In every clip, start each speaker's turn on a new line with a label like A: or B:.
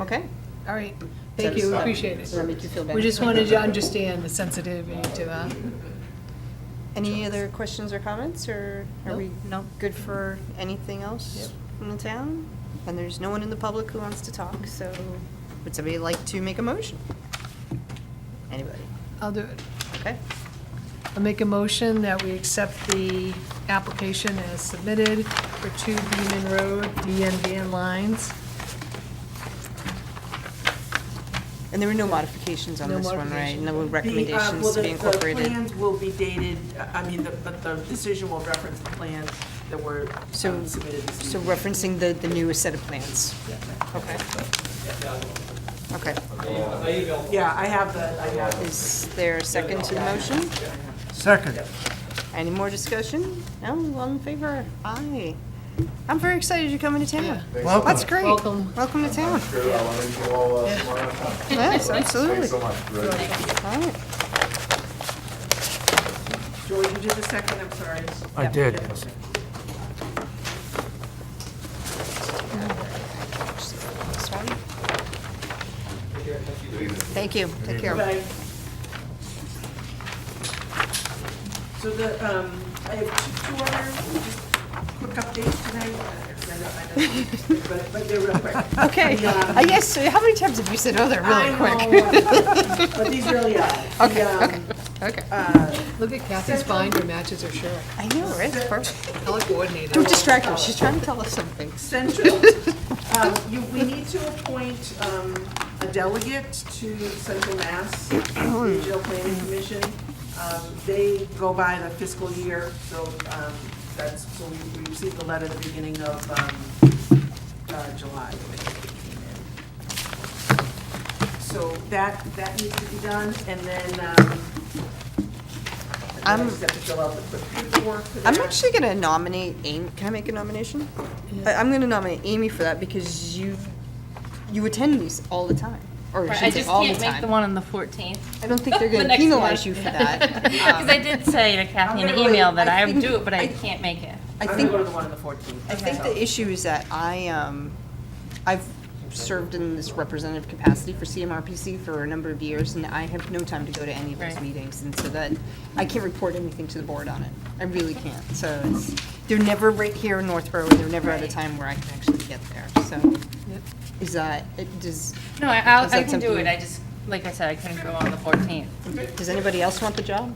A: Okay.
B: All right, thank you,
A: Satisfied.
B: appreciate it.
A: Does that make you feel better?
B: We just wanted to understand the sensitivity to uh, that.
A: Any other questions or comments, or are
B: Nope.
A: we no good for anything else from the town? And there's no one in the public who wants to talk, so would somebody like to make a motion? Anybody?
B: I'll do it.
A: Okay.
B: I'll make a motion that we accept the application as submitted for two Beaman Road DN van lines.
A: And there were no modifications on
B: No
A: this one, right?
B: modifications.
A: No
C: The, uh, well,
A: recommendations to
C: the-
A: be incorporated?
C: The plans will be dated, I mean, the- but the decision will reference the plans that were um,
A: So,
C: submitted this
A: so
C: evening.
A: referencing the, the newest set of plans? Okay. Okay.
C: Yeah, I have the, I have the
A: Is there a second to the motion?
D: Second.
A: Any more discussion? No, all in favor? Aye. I'm very excited you're coming to town. That's great.
B: Welcome.
A: Welcome to town.
E: Sure, I'll run into you all uh, tomorrow.
A: Yes, absolutely.
E: Thanks so much. Really appreciate it.
A: All right.
C: George, you did the second, I'm sorry.
D: I did.
A: This one. Thank you. Take care.
C: Bye. So the, um, I have two two other, just quick updates tonight. Uh, I know- I know- But, but they're real quick.
A: Okay. Uh, Yes, so how many times have you said, oh, they're really
C: I
A: quick?
C: know, But these really are. The,
A: Okay,
C: um,
A: okay, okay.
B: Look at Kathy's binder matches her shirt.
A: I know, right? It's perfect.
B: I like coordinated.
A: Don't distract her. She's trying to tell us something.
C: Central, um, you, we need to appoint, um, a delegate to Central Mass Regional Planning Commission. Um, they go by the fiscal year, so, um, that's, so we, we received the letter at the beginning of, um, uh, July. I think it came in. So that, that needs to be done, and then, um, and then I
A: I'm-
C: just have to fill out the quick paperwork for
A: I'm
C: that.
A: actually gonna nominate Amy. Can I make a nomination? I- I'm gonna nominate Amy for that because you, you attend these all the time. Or I
F: Right, I
A: should say
F: just
A: all the
F: can't make the
A: time.
F: one on the fourteenth.
A: I don't think they're gonna penalize you for that. Um,
F: Because I did say to Kathy in
C: I'm
F: an
C: gonna-
F: email that
A: I
F: I would
A: think-
F: do it, but
A: I-
F: I can't make it.
A: I
C: I'm gonna
A: think,
C: go to the one on the fourteenth.
A: I think the issue is that I, um, I've served in this representative capacity for CMRPC for a number of years and I have no time to go to any of those
F: Right.
A: meetings. And so that, I can't report anything to the board on it. I really can't. So it's, they're never right here in Northborough. They're never at a time where I can actually get there. So is that, it- does,
F: No, I, I'll-
A: Is
F: I
A: that
F: can do
A: something-
F: it, I just, like I said, I couldn't go on the fourteenth.
A: Does anybody else want the job?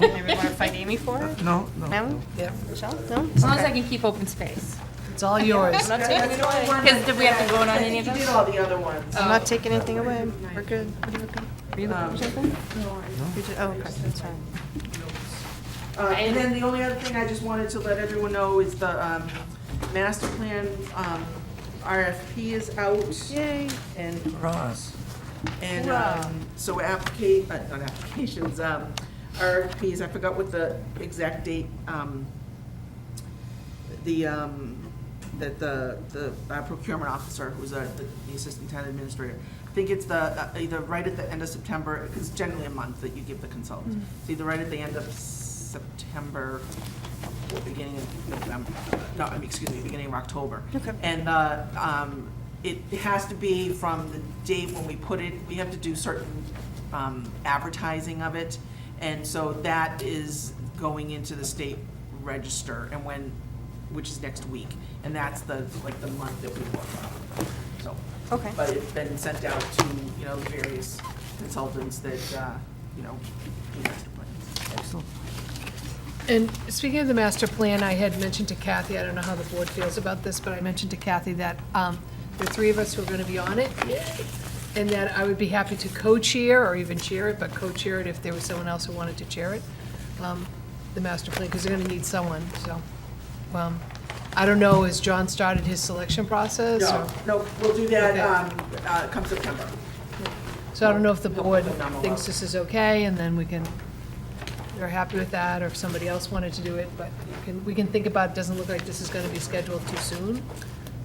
A: Anybody want to fight Amy for it?
D: No, no.
A: No?
B: Yep,
A: Michelle? No?
F: As long as I can keep open space.
B: it's all yours.
F: I'm not taking it away. Because did we have to vote on any of
C: You did
F: those?
C: all the other ones.
A: I'm not taking anything away. We're good. Um, What are you looking? Are you looking for something? You ju- Oh, okay, that's fine.
C: Uh, And then the only other thing I just wanted to let everyone know is the um, master plan um, RFP is out.
A: Yay.
C: And,
D: Ross.
C: and um, so applica, uh, not applications, um, RFPs, I forgot what the exact date, um, the, um, that the, the uh, procurement officer, who's uh, the the assistant town administrator, I think it's the, uh, either right at the end of September, because generally a month that you give the consultant. It's either right at the end of September or beginning of November, no, I mean, excuse me, beginning of October.
A: Okay.
C: And, uh, um, it has to be from the date when we put it, we have to do certain, um, advertising of it. And so that is going into the state register and when, which is next week. And that's the, like, the month that we work on, so.
A: Okay.
C: But it's been sent out to, you know, the various consultants that, uh, you know, do master plans.
B: And speaking of the master plan, I had mentioned to Kathy, I don't know how the board feels about this, but I mentioned to Kathy that um, the three of us who are going to be on it, and that I would be happy to co-chair or even chair it, but co-chair it if there was someone else who wanted to chair it, um, the master plan, because they're going to need someone, so. um, I don't know, has John started his selection process? or-
C: No, no, we'll do
B: Okay.
C: that, um, uh, come September.
B: So I don't know if the
C: No,
B: board
C: no, no, no.
B: thinks this is okay, and then we can, they're happy with that, or if somebody else wanted to do it, but you can, we can think about, it doesn't look like this is gonna be scheduled too soon.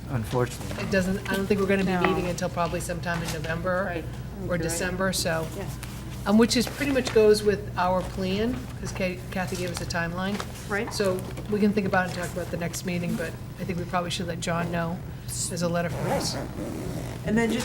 D: Unfortunately.
B: It doesn't, I don't think we're gonna
A: No.
B: be meeting until probably sometime in November
A: Right.
B: or
A: Right.
B: December, so.
A: Yeah.
B: Um, which is, pretty much goes with our plan, because Kathy gave us a timeline.
A: Right.
B: So we can think about it and talk about the next meeting, but I think we probably should let John know, there's a letter for us.
C: And then just